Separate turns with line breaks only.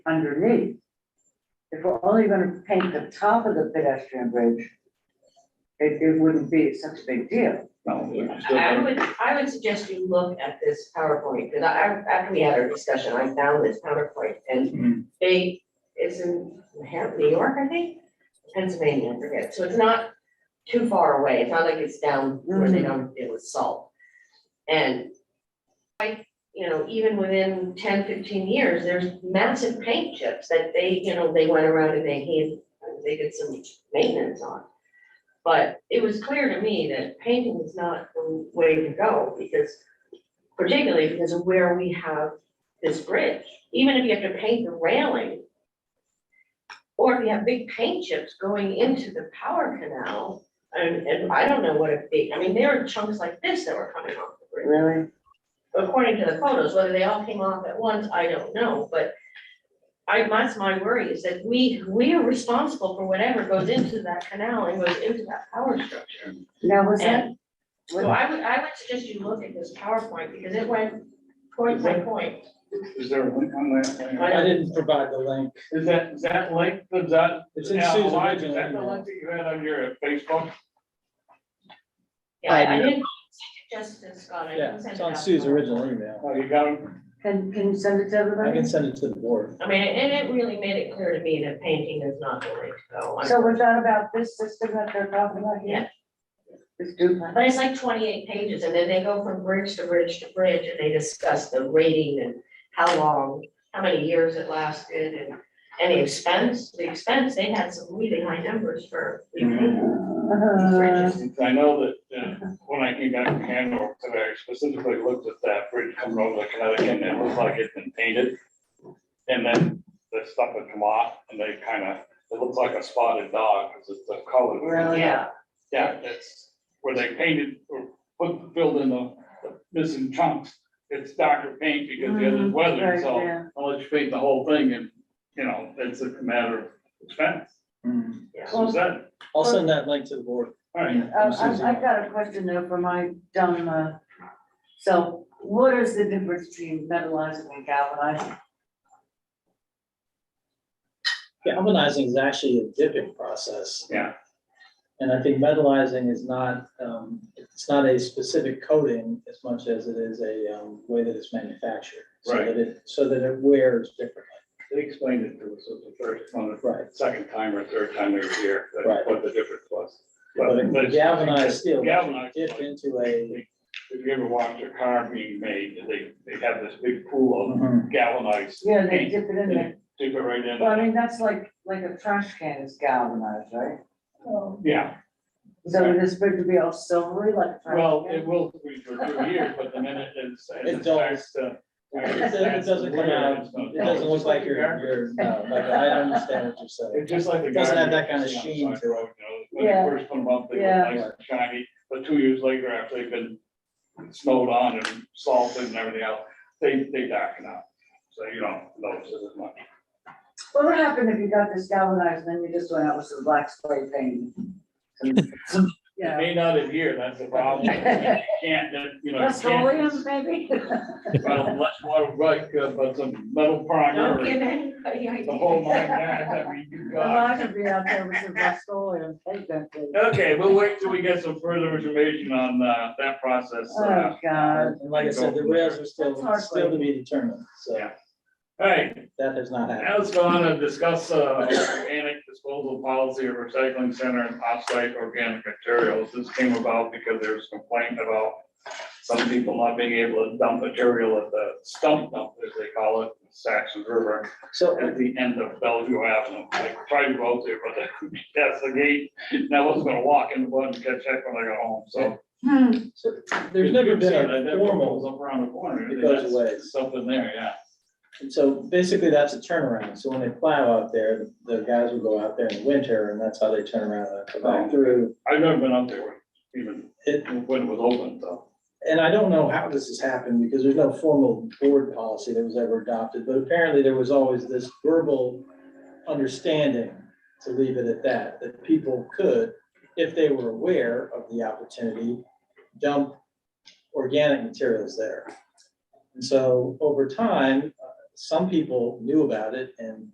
underneath. If we're only gonna paint the top of the pedestrian bridge, it, it wouldn't be such a big deal.
I would, I would suggest you look at this PowerPoint, because I, I- after we had our discussion, I found this PowerPoint,
Hmm.
and they, it's in Manhattan, New York, I think, Pennsylvania, I forget, so it's not too far away, it's not like it's down where they don't deal with salt. And, like, you know, even within 10, 15 years, there's massive paint chips that they, you know, they went around and they hid, they did some maintenance on. But it was clear to me that painting is not the way to go, because particularly because of where we have this bridge, even if you have to paint the railing. Or if you have big paint chips going into the power canal, and, and I don't know what it be, I mean, there are chunks like this that were coming off the bridge
Really?
according to the photos, whether they all came off at once, I don't know, but I, that's my worry, is that we, we are responsible for whatever goes into that canal and goes into that power structure.
Now, was that,
And so I would, I would suggest you look at this PowerPoint, because it went point by point.
Is there a link on that?
I didn't provide the link.
Is that, is that link, is that?
It's in
yeah,
Sue's
why- Is
original
that the
email.
link that you had on your Facebook?
Yeah, I
I do.
didn't suggest this, Scott, I
Yeah,
didn't send
it's
it
on
out.
Sue's original email.
Oh, you got it?
can, can you send it to
I
everybody?
can send it to the board.
I mean, and it really made it clear to me that painting is not the way to go.
So was that about this system that they're talking about here? This duplex?
But it's like twenty-eight pages, and then they go from bridge to bridge to bridge, and they discuss the rating and how long, how many years it lasted, and, and the expense, the expense, they had some really high numbers for.
Mm-hmm.
repayment.
Uh,
I know that, uh, when I came back from Hanover today, I specifically looked at that bridge coming over to Connecticut, and it looked like it'd been painted. And then the stuff had come off, and they kind of, it looks like a spotted dog, because it's the color.
Really?
Yeah,
Yeah, that's where they painted or put, filled in the the missing chunks. It's darker paint because the other's weathered,
Right,
so
yeah.
unless you paint the whole thing and, you know, it's a matter of expense.
yeah.
So is that,
I'll send that link to the board.
Mm. all right.
Uh, I- I've got a question though for my dumb, uh, so what is the difference between metallizing and galvanizing?
Galvanizing is actually a dipping process.
Yeah.
And I think metallizing is not, um, it's not a specific coating as much as it is a, um, way that it's manufactured. So
Right.
that it, so that it wears differently.
They explained it to us the first, on the
Right.
second time or third time they were here,
Right.
that's what the difference was.
But
it's-
galvanized steel,
Galvanized.
dip into a,
If you ever watched a car being made, they, they have this big pool of galvanized
Yeah, they
paint.
dip it in there.
Dip it right in.
Well, I mean, that's like, like a trash can is galvanized, right?
Yeah,
So this bridge would be all silvery like a trash can?
well, it will be for two years, but the minute it's,
It
it starts to.
it doesn't- it doesn't come out, it doesn't look like you're, you're, no, like, I understand what you're saying.
It's just like the.
It doesn't have that
garbage
kind of
you see
sheen
on the
to it.
side road, you know,
Yeah.
When you first put them up, they
Yeah.
were nice and shiny, but two years later, after they've been snowed on and salted and everything else, they, they darken out. So you don't notice it as much.
What would happen if you got this galvanized and then you just went out with some black spray paint? Some- some, you
It
know,
may not adhere, that's the problem. You Can't, that, you know. you
Petroleum,
can't-
maybe?
Well, much more like, uh, but some metal primer
Don't
or
give anybody ideas.
the whole nine yards that we do
Well,
got.
I could be out there with some petroleum paint, that thing.
Okay, we'll wait till we get some further information on, uh, that process. uh,
Oh, God.
And like I said, the rails are
That's
still,
hard.
still to be determined, so
Yeah. All right,
that has not happened.
Now let's go on and discuss uh, organic disposal policy of recycling center and offsite organic materials. This came about because there was complaint about some people not being able to dump material at the stump dump, as they call it, in Saxon River,
So
at the end of Bellevue Avenue. I tried to go out there, but that's the gate, and I wasn't gonna walk in the mud and catch that when I got home, so.
Hmm,
So There's never been
That- that
a
goes
formal,
Up around the corner,
It goes
that's
away.
something there, yeah.
and so basically that's a turnaround. So when they plow out there, the guys will go out there in the winter and that's how they turn around and come back through.
I've never been out there even
It,
when it was open, so.
and I don't know how this has happened because there's no formal board policy that was ever adopted, but apparently there was always this verbal understanding to leave it at that, that people could, if they were aware of the opportunity, dump organic materials there. And so over time, uh, some people knew about it and